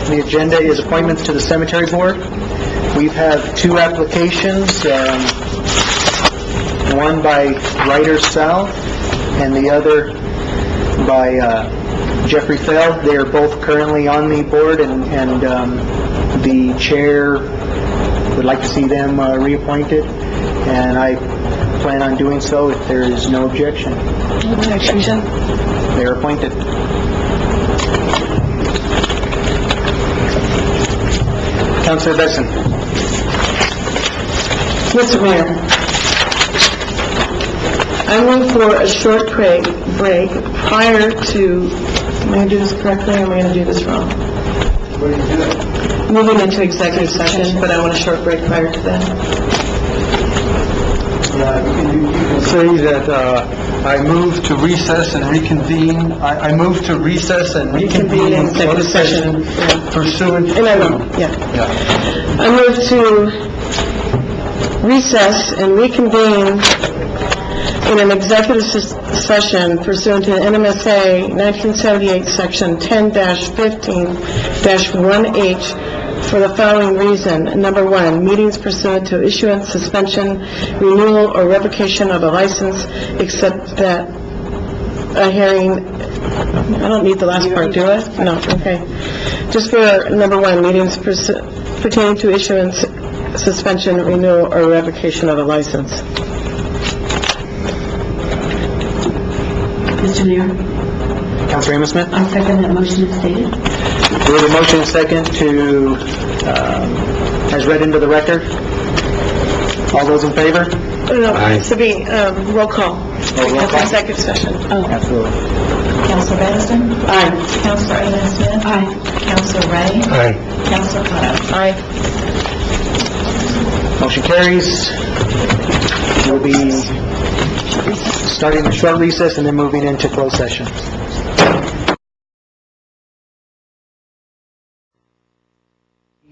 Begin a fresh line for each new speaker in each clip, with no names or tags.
on the agenda is appointments to the cemetery board. We have two applications, um, one by Ryder South and the other by uh, Jeffrey Feld. They are both currently on the board, and and um, the chair would like to see them uh, reappointed, and I plan on doing so if there is no objection. They're appointed. Councilor Besson.
Mr. Mayor, I move for a short break, break prior to, am I going to do this correctly, or am I going to do this wrong? Moving into executive session, but I want a short break prior to that.
say that uh, I move to recess and reconvene, I I move to recess and reconvene in closed session pursuant
And I
to...
will, yeah.
Yeah.
I move to recess and reconvene in an executive ses- session pursuant to NMSA 1978, Section 10-15-1H for the following reason. Number one, meetings pursuant to issuance, suspension, renewal, or revocation of a license, except that a hearing, I don't need the last part, do I? No, okay. Just for number one, meetings pursu- pertaining to issuance, suspension, renewal, or revocation of a license.
Mr. Mayor,
Councilor Amos Smith?
I second that motion as stated.
We have a motion and second to, um, as read into the record. All those in favor?
No, Sabine, um, roll call.
roll call.
Executive session.
Absolutely.
Counselor Baniston?
Aye.
Counselor Ellen Smith?
Aye.
Counselor Ray?
Aye.
Counselor Cotto?
Aye.
Motion carries. We'll be starting a short recess and then moving into closed session.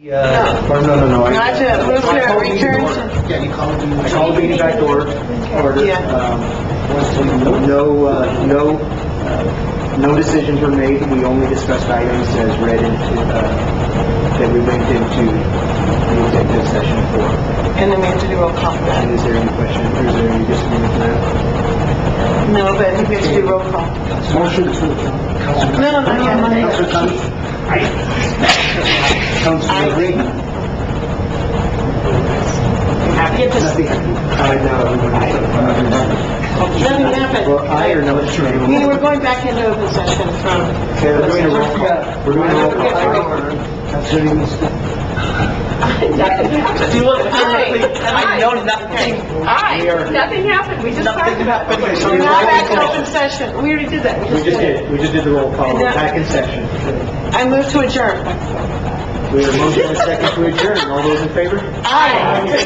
Or Oh, no, no, no, I-
Not to move to return to...
Yeah, you called me, I called me back to order, order.
Yeah.
Um, No, uh, no, uh, no decisions were made, we only discussed items as read into, uh, that we went into the executive session for.
And then we have to do roll call for that.
And is there any question, or is there any disagreement to that?
No, but I think we have to do roll call.
Motion to...
No, no, no, no, no.
Councilman Green. I know.
Nothing happened.
Well, I or no,
We were going back into open session from...
Okay, we're doing a roll call. We're doing a roll call. Councilor Amos Smith?
I know nothing.
Aye, nothing happened, we just talked about it.
Okay, so
We're
we're
now back to
back
open session. We already did that.
We just did, we just did the roll call, we're back in session.
I move to adjourn.
We have a motion and a second to adjourn, all those in favor?
Aye.